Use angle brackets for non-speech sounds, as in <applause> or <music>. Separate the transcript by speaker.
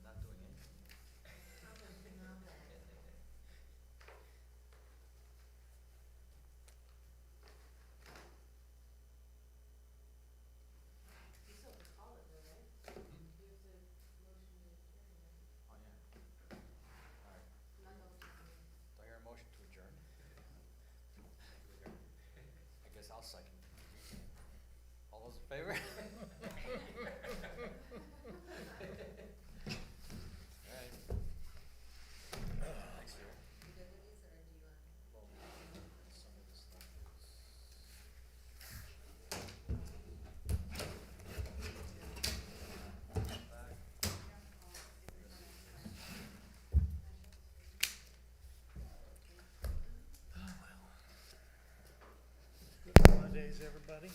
Speaker 1: oh, I'll second. All those in favor? <laughs> Alright. Thanks, Sarah.
Speaker 2: You good with these, or do you want?
Speaker 3: Good holidays, everybody.